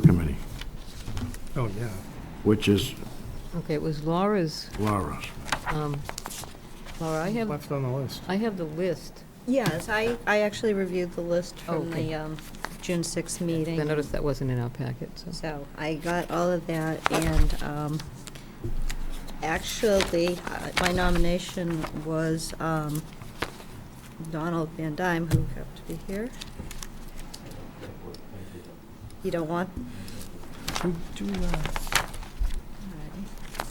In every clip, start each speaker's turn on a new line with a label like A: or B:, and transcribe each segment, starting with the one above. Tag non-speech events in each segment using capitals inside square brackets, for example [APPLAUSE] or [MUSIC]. A: Committee,
B: Oh, yeah.
A: which is
C: Okay, it was Laura's,
A: Laura's.
C: um, Laura, I have,
B: Left on the list.
C: I have the list.
D: Yes, I, I actually reviewed the list from
C: Okay.
D: the um, June 6th
C: I
D: meeting,
C: noticed that wasn't in our packet, so.
D: so I got all of that, and um, actually, uh, my nomination was um, Donald Van Dyne, who happened to be here. You don't want?
B: Do, do, uh,
D: All right.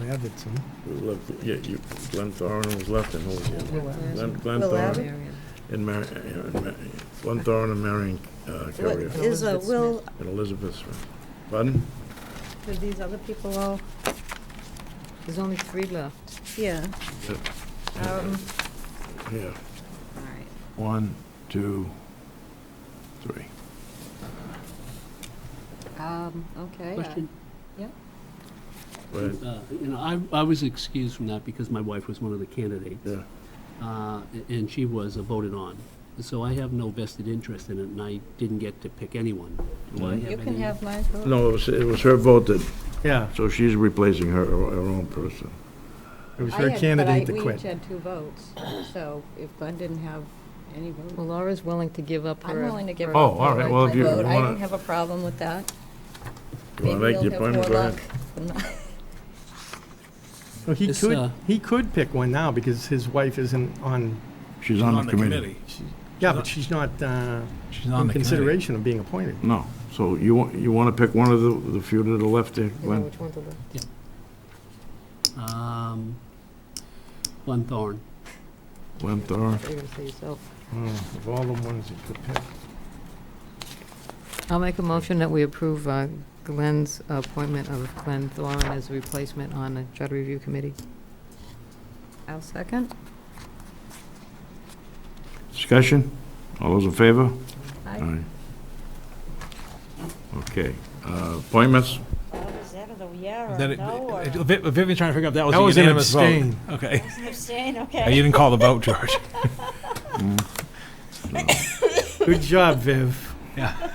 B: Will Abbott's in.
A: Yeah, you, Glenn Thorne was left and who was the other?
B: Will Abbott.
A: Glenn- Glenn
D: Will
A: Thorne
D: Abbott?
C: Marion.
A: and Mar, uh, Ma- Glenn Thorne and Marion uh,
D: What
A: Carrier
D: Is a
C: Elizabeth
D: will,
A: and Elizabeth Smith. Pardon?
D: are these other people all,
C: There's only three left.
D: yeah.
A: Yeah.
D: um,
A: Yeah,
D: All right.
A: one, two, three.
D: Um, Okay. uh,
E: Question,
A: Right,
E: uh, you know, I, I was excused from that because my wife was one of the candidates.
A: yeah.
E: Uh, and she was voted on. So I have no vested interest in it, and I didn't get to pick anyone. Do I
A: Mhm.
E: have
D: You can
E: any-
D: have my vote.
A: No, it was, it was her vote that,
B: Yeah,
A: so she's replacing her, her own person.
B: it was
F: I
B: her
F: had- but
B: candidate
F: I-
B: that
F: We each
B: quit.
F: had two votes, so if Glenn didn't have any votes,
C: Well, Laura's willing to give up her.
F: I'm willing to give
C: her-
F: up
A: Oh, all right, well, if
F: my
A: you
F: vote.
A: want
D: vote. I don't
A: to,
D: have a problem with that.
A: you want to make the appointment, go ahead.
B: Well, he
E: This,
B: could,
E: uh,
B: he could pick one now because his wife isn't on,
A: She's on the committee.
B: yeah, but she's not uh,
G: She's on
B: in
G: the committee.
B: consideration of being appointed.
A: No, so you, want you want to pick one of the, the few to the left there,
C: I know
A: Glenn?
C: which one to look.
E: Um, Glenn Thorne.
A: Glenn
G: Mm.
A: Thorne?
C: You're gonna say yourself.
B: Mm, Of all the ones he could pick.
C: I'll make a motion that we approve uh, Glenn's appointment of Glenn Thorne as a replacement on the charter review committee.
D: I'll second.
A: Discussion? All those in favor?
D: Aye.
A: Okay, uh, appointments?
D: Was that a yeah
G: Is that it- it- Viv- Vivian's trying to figure out if that
B: That was
G: was a
B: an
G: unanimous vote.
B: abstain.
G: Okay. [LAUGHS]
D: okay.
G: You didn't call the vote, George.
B: Good job, Viv.
G: Yeah.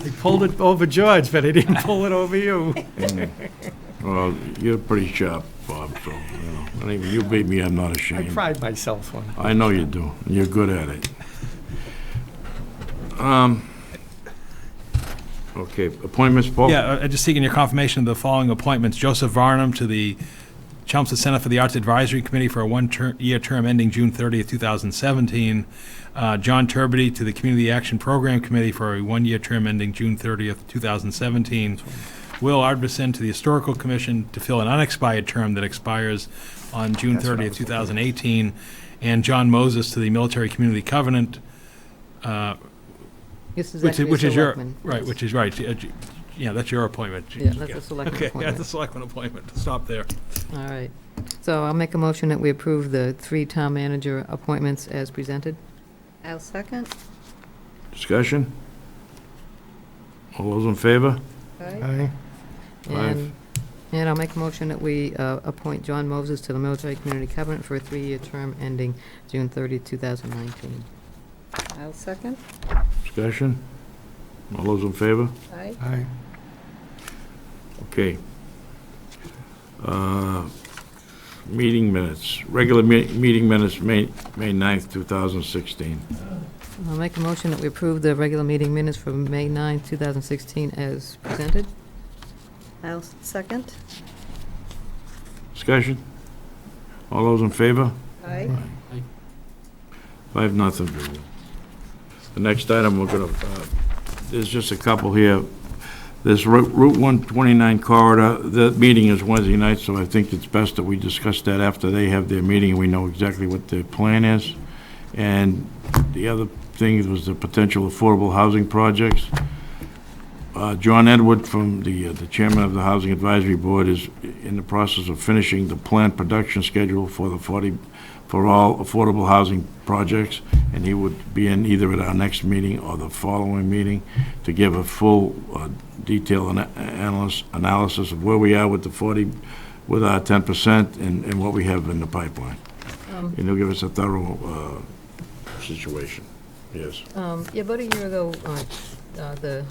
B: I pulled it over George, but I didn't
G: [LAUGHS]
B: pull it over you.
A: Well, you're pretty sharp, Bob, so, you know, and even you beat me, I'm not
B: I
A: ashamed.
B: pride myself on
A: I know you do, and you're good at it. Um, Okay, appointments, Paul?
G: Yeah, uh, just seeking your confirmation of the following appointments. Joseph Varnum to the Chelmsford Center for the Arts Advisory Committee for a one-year term ending June 30th, 2017. Uh, John Turbity to the Community Action Program Committee for a one-year term ending June 30th, 2017. Will Ardbison to the Historical Commission to fill an unexpired term that expires on June 30th, 2018. And John Moses to the Military Community Covenant, uh,
C: This is
G: which is-
C: actually
G: which is your,
C: selectmen.
G: right, which is right. Uh, j- Yeah, that's your appointment.
C: Yeah, that's a selectman
G: Okay, yeah,
C: appointment.
G: the selectman appointment, stop there.
C: All right. So I'll make a motion that we approve the three town manager appointments as presented.
D: I'll second.
A: Discussion? All those in favor?
B: it.
A: Uh,
D: Aye.
B: Aye.
A: Aye.
C: And, and I'll make a motion that we uh, appoint John Moses to the Military Community Covenant for a three-year term ending June 30, 2019.
D: I'll second.
A: Discussion? All those in favor?
D: Aye.
B: Aye.
A: Okay. Uh, Meeting minutes, regular me- meeting minutes, May May 9th, 2016.
C: I'll make a motion that we approve the regular meeting minutes for May 9, 2016 as presented.
D: I'll second.
A: Discussion? All those in favor?
D: Aye.
A: Five, nothing. The next item, we're going to, there's just a couple here. This Ru- Route 129 corridor, the meeting is Wednesday night, so I think it's best that we discuss that after they have their meeting, and we know exactly what their plan is. And the other thing was the potential affordable housing projects. Uh, John Edward from the, uh, the chairman of the Housing Advisory Board is in the process of finishing the planned production schedule for the 40, for all affordable housing projects, and he would be in either at our next meeting or the following meeting to give a full, uh, detailed ana- analysis, analysis of where we are with the 40, with our 10% and, and what we have in the pipeline.
C: Um,
A: And he'll give us a thorough, uh, situation, yes.
C: Um, Yeah, about a year ago, uh, uh, the